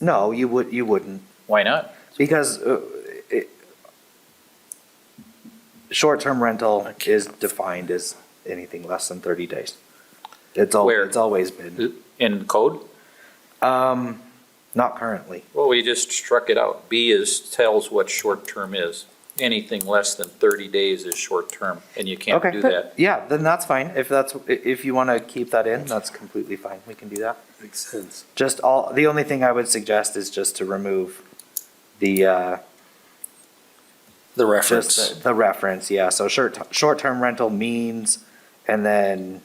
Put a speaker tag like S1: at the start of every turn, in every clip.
S1: No, you would, you wouldn't,
S2: Why not?
S1: because uh, it- short-term rental is defined as anything less than 30 days. It's al,
S2: Where?
S1: it's always been,
S2: In code?
S1: not currently.
S2: Well, we just struck it out. B is, tells what short-term is. Anything less than 30 days is short-term, and you can't
S1: Okay,
S2: do that.
S1: Yeah, then that's fine. If that's, i- if you want to keep that in, that's completely fine. We can do that.
S3: Makes sense.
S1: Just all, the only thing I would suggest is just to remove the, uh,
S3: The
S1: just
S3: reference.
S1: the- the reference, yeah. So short, short-term rental means, and then,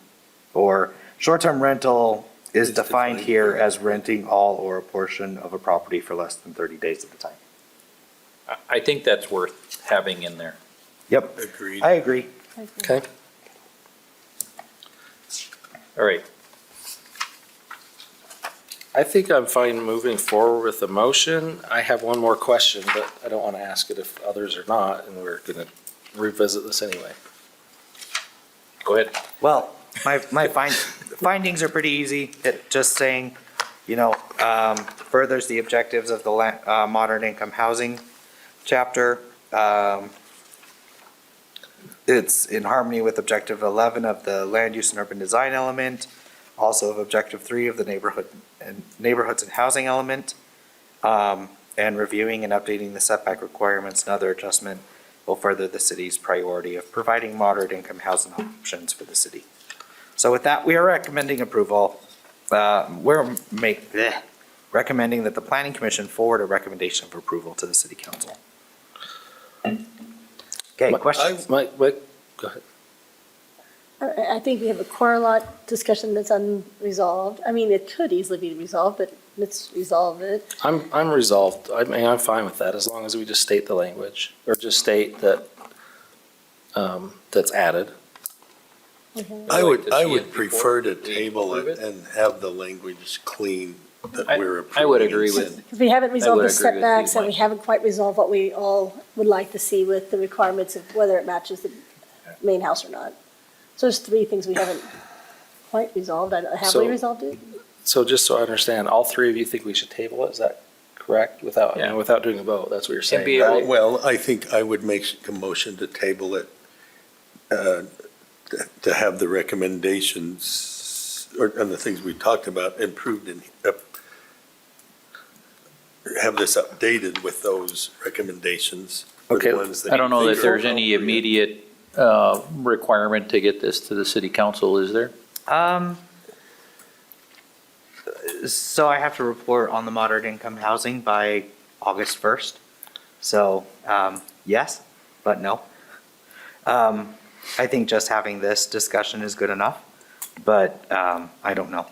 S1: or short-term rental is
S3: Is
S1: defined
S3: defined.
S1: here as renting all or a portion of a property for less than thirty days at a time.
S2: I- I think that's worth having in there.
S1: Yep,
S3: Agreed.
S1: I agree.
S3: Okay.
S2: All right,
S3: I think I'm fine moving forward with the motion. I have one more question, but I don't want to ask it if others are not, and we're going to revisit this anyway.
S2: go ahead.
S1: Well, my, my find, findings are pretty easy. It, just saying, you know, um, furthers the objectives of the la, uh, modern income housing chapter. Um, it's in harmony with objective eleven of the land use and urban design element, also of objective three of the neighborhood and neighborhoods and housing element. Um, and reviewing and updating the setback requirements and other adjustment will further the city's priority of providing moderate income housing options for the city. So with that, we are recommending approval. Uh, We're make, bleh, recommending that the planning commission forward a recommendation of approval to the city council. Okay,
S3: My-
S1: questions?
S3: My, my, go ahead.
S4: I I think we have a core lot discussion that's unresolved. I mean, it could easily be resolved, but let's resolve it.
S3: I'm, I'm resolved. I mean, I'm fine with that as long as we just state the language or just state that, um, that's added.
S4: Okay.
S5: I
S2: like
S5: would,
S2: to
S5: I
S2: see
S5: would
S2: it before
S5: prefer to
S2: we
S5: table
S2: approve
S5: it
S2: it.
S5: and have the language clean that
S2: I-
S5: we're approving.
S2: I would
S5: and
S2: agree with
S5: sending.
S4: Because we haven't resolved the
S2: agree with you,
S4: setbacks and we
S2: Mike.
S4: haven't quite resolved what we all would like to see with the requirements of whether it matches the main house or not. So there's three things we haven't quite resolved. I don't- Have we
S3: So-
S4: resolved it?
S3: So just so I understand, all three of you think we should table it? Is that correct? Without,
S2: Yeah.
S3: without doing a vote? That's what you're
S2: And be
S3: saying,
S2: able,
S3: right?
S5: Uh, Well, I think I would make a motion to table it, uh, to- to have the recommendations or, and the things we talked about improved and up- have this updated with those recommendations. for the
S3: Okay,
S5: ones that
S2: I don't know
S5: you
S2: that
S5: think are
S2: there's any
S5: appropriate.
S2: immediate uh, requirement to get this to the city council, is there?
S1: Um, so I have to report on the moderate income housing by August first. So, um, yes, but no. Um, I think just having this discussion is good enough, but, um, I don't know.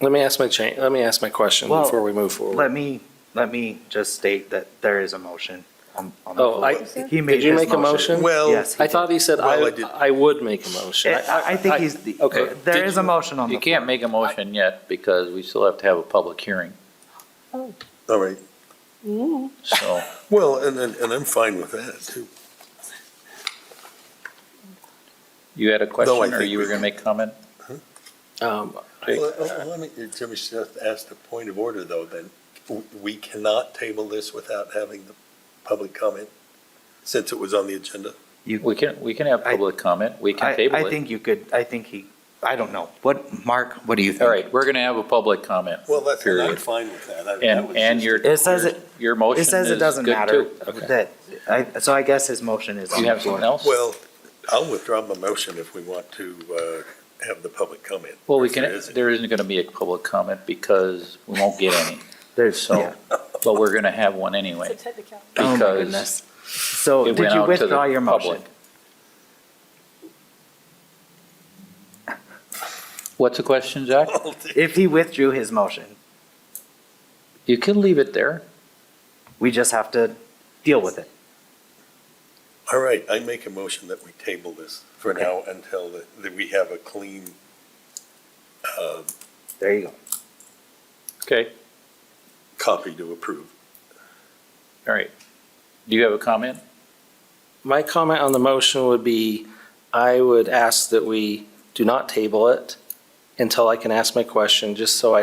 S3: Let me ask my cha, let me ask my question
S1: Well,
S3: before we move forward.
S1: Let me, let me just state that there is a motion on, on the
S3: Oh,
S1: floor.
S3: I,
S1: He made
S3: Did you
S1: his
S3: make a motion?
S5: Well-
S1: Yes, he
S3: I thought he said
S5: Well,
S3: I,
S5: I did-
S3: I would make a motion.
S1: did. I, I think he's, the-
S3: okay.
S1: there
S3: Did
S1: is a
S3: you-
S1: motion on the
S2: You
S1: floor.
S2: can't make a motion yet because we still have to have a public hearing,
S5: All right.
S4: Mm.
S2: so.
S5: Well, and, and and I'm fine with that too.
S2: You had a question,
S5: No, I
S2: or
S5: think
S2: you were
S5: we-
S2: gonna make comment?
S3: Um, I-
S5: Well, uh, Let me, Jimmy just asked a point of order, though, then. W- We cannot table this without having the public comment, since it was on the agenda.
S2: We can, we can have
S1: I-
S2: public comment, we can
S1: I,
S2: table
S1: I
S2: it.
S1: think you could, I think he, I don't know. What, Mark, what do you think?
S2: All right, we're gonna have a public comment.
S5: Well, that's, I'm
S2: Period.
S5: fine with that. I- that
S2: And,
S5: was
S2: and
S5: just-
S2: your,
S1: It says
S2: your-
S1: it-
S2: your motion
S1: It
S2: is
S1: says it doesn't
S2: good
S1: matter
S2: too.
S1: that, I, so I guess his motion is
S2: Do
S1: on
S2: you
S1: the
S2: have something
S1: floor.
S2: else?
S5: Well, I'll withdraw my motion if we want to uh, have the public comment.
S2: Well, we
S5: if there
S2: can,
S5: isn't.
S2: there isn't gonna be a public comment because we won't get any,
S1: There's,
S2: so,
S1: yeah.
S2: but we're gonna have one anyway.
S1: Oh my
S2: because
S1: goodness. So
S2: it
S1: did
S2: went
S1: you
S2: out to the
S1: withdraw your motion?
S2: public. What's the question, Zach?
S1: If he withdrew his motion,
S2: You can leave it there.
S1: we just have to deal with it.
S5: All right, I make a motion that we table this for now until the- that we have a clean, uh,
S1: There you go.
S2: Okay.
S5: copy to approve.
S2: All right. Do you have a comment?
S3: My comment on the motion would be, I would ask that we do not table it until I can ask my question, just so I